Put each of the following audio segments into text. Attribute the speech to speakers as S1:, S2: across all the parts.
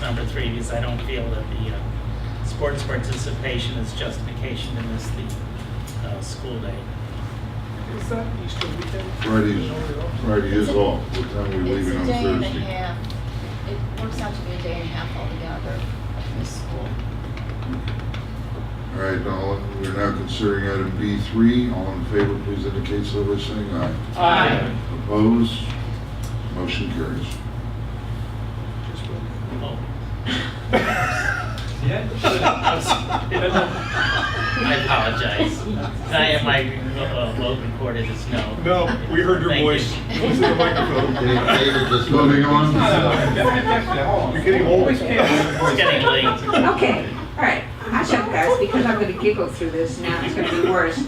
S1: number three, because I don't feel that the uh, sports participation is justification to miss the uh, school day.
S2: Is that Easter weekend?
S3: Fridays, Friday is
S4: It's a-
S3: off, what time we
S4: It's
S3: leaving
S4: a
S3: on
S4: day and a
S3: Thursday?
S4: half. It works out to be a day and a half altogether of this school.
S3: All right, now, we're now considering item B three, all in favor, please indicate so by saying aye.
S1: Aye.
S3: Opposed? Motion carries.
S1: Oh,
S2: Yeah.
S1: I apologize. Can I have my uh, vote recorded as no?
S2: No, we heard your
S1: Thank you.
S2: voice. Listen to the microphone.
S3: David, just moving on.
S2: You're getting old.
S1: It's getting late.
S5: Okay, all right. I'll show you guys because I'm gonna giggle through this now. It's gonna be worse.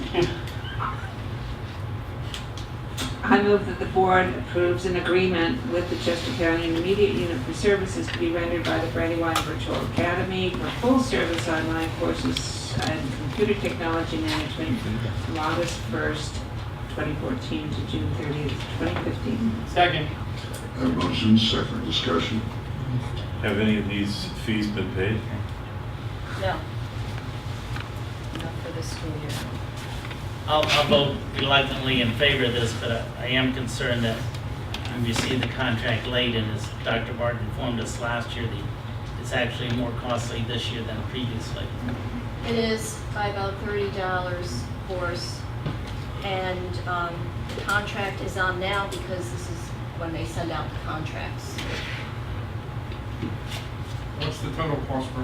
S5: I move that the board approves an agreement with the Chester County Immediate Unit for services to be rendered by the Brandywine Virtual Academy for full-service online courses and computer technology management from August 1st, 2014 to June 30th, 2015.
S1: Second.
S3: Have motion, second discussion.
S6: Have any of these fees been paid?
S4: No. Not for this school year.
S1: I'll, I'll vote reluctantly in favor of this, but I- I am concerned that we received the contract late, and as Dr. Barton informed us last year, the, it's actually more costly this year than previously.
S4: It is by about thirty dollars course. And um, the contract is on now because this is when they send out the contracts.
S2: What's the total cost for,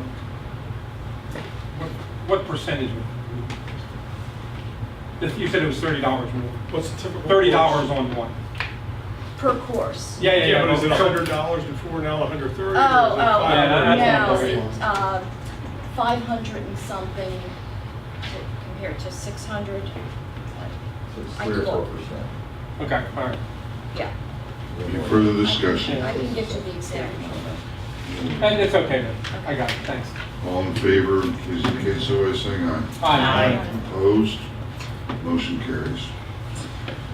S2: what, what percentage? would- If you said it was thirty dollars more.
S7: What's the typical?
S2: Thirty
S7: course?
S2: dollars on one.
S4: Per course.
S2: Yeah, yeah, yeah.
S7: Yeah, but is it
S2: no,
S7: hundred dollars before now, a hundred thirty?
S4: Oh,
S2: Yeah,
S4: oh,
S2: that's
S4: no,
S2: not
S4: uh, five hundred and something to- compared to six hundred. I can look.
S2: Okay, all right.
S4: Yeah.
S3: Any further discussion?
S4: I can get you the exact number.
S2: And it's okay then. I got it, thanks.
S3: All in favor, please indicate so by saying aye.
S2: Aye.
S3: Opposed? Motion carries.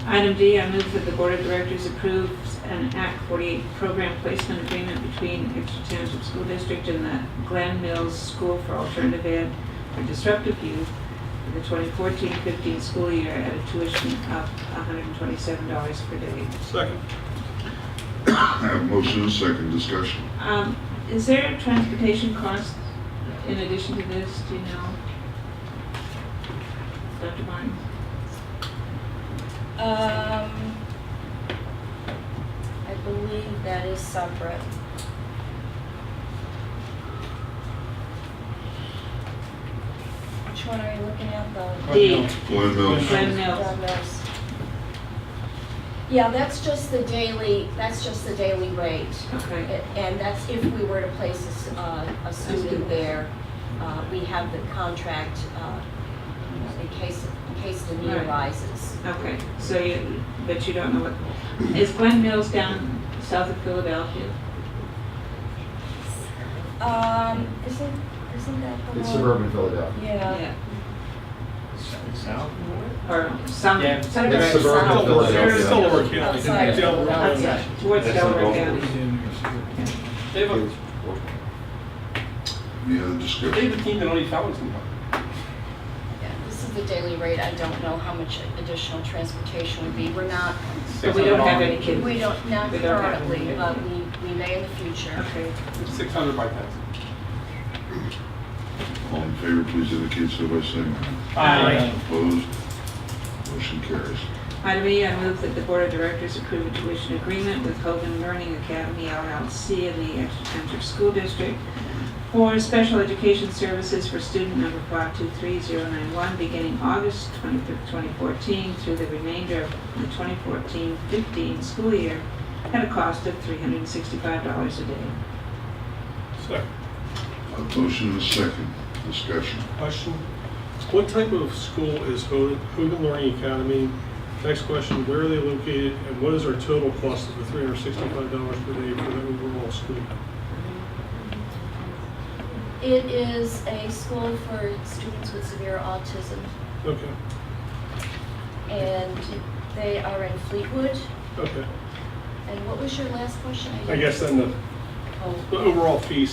S5: Item D, I move that the Board of Directors approves an Act 48 program placement agreement between Exeter Township School District and the Glen Mills School for Alternative Ed for Disruptive Youth for the 2014-15 school year at a tuition of $127 per day.
S7: Second.
S3: I have motion and second discussion.
S5: Um, Is there a transportation cost in addition to this, do you know? Dr. Martin?
S4: Um, I believe that is separate. Which one are you looking at, though?
S5: D,
S3: Glenn Mills.
S5: Glen Mills.
S4: Down those. Yeah, that's just the daily, that's just the daily rate.
S5: Okay.
S4: And that's if we were to place a s- uh, a student there. Uh, We have the contract uh, in case, in case the need
S5: Right.
S4: arises.
S5: Okay, so you, but you don't know what, is Glen Mills down south of Philadelphia?
S4: Um, Isn't, isn't that the one?
S8: It's suburban Philadelphia.
S4: Yeah.
S6: South?
S5: Or some,
S2: Yeah.
S5: some
S8: It's
S5: direction.
S4: suburban
S8: suburban
S4: South.
S7: It's still
S8: Philadelphia.
S7: over county.
S4: Outside.
S7: Yeah.
S5: Outside, towards
S6: That's the
S5: Delaware
S6: goal.
S5: County.
S2: They have a,
S3: Any other
S2: they have
S3: discussion?
S2: a team that only travels in one.
S4: Yeah, This is the daily rate. I don't know how much additional transportation would be. We're not,
S5: But we don't have any
S4: we
S5: kids.
S4: don't, not
S5: We don't have
S4: currently,
S5: any.
S4: but we, we may in the future.
S5: Okay,
S2: Six hundred by thousand.
S3: All in favor, please indicate so by saying aye.
S1: Aye.
S3: Opposed? Motion carries.
S5: item E, I move that the Board of Directors approve a tuition agreement with Hogan Learning Academy LLC in the Exeter Township School District for special education services for student number 523091 beginning August 25th, 2014 through the remainder of the 2014-15 school year at a cost of $365 a day.
S7: Second.
S3: A motion and a second discussion.
S7: Question. What type of school is Ho- Hogan Learning Academy? Next question, where are they located and what is our total cost of the three hundred sixty-five dollars per day for the overall school?
S4: It is a school for students with severe autism,
S7: Okay,
S4: and they are in Fleetwood.
S7: okay.
S4: And what was your last question?
S7: I guess then the,
S4: Oh.
S7: the overall fees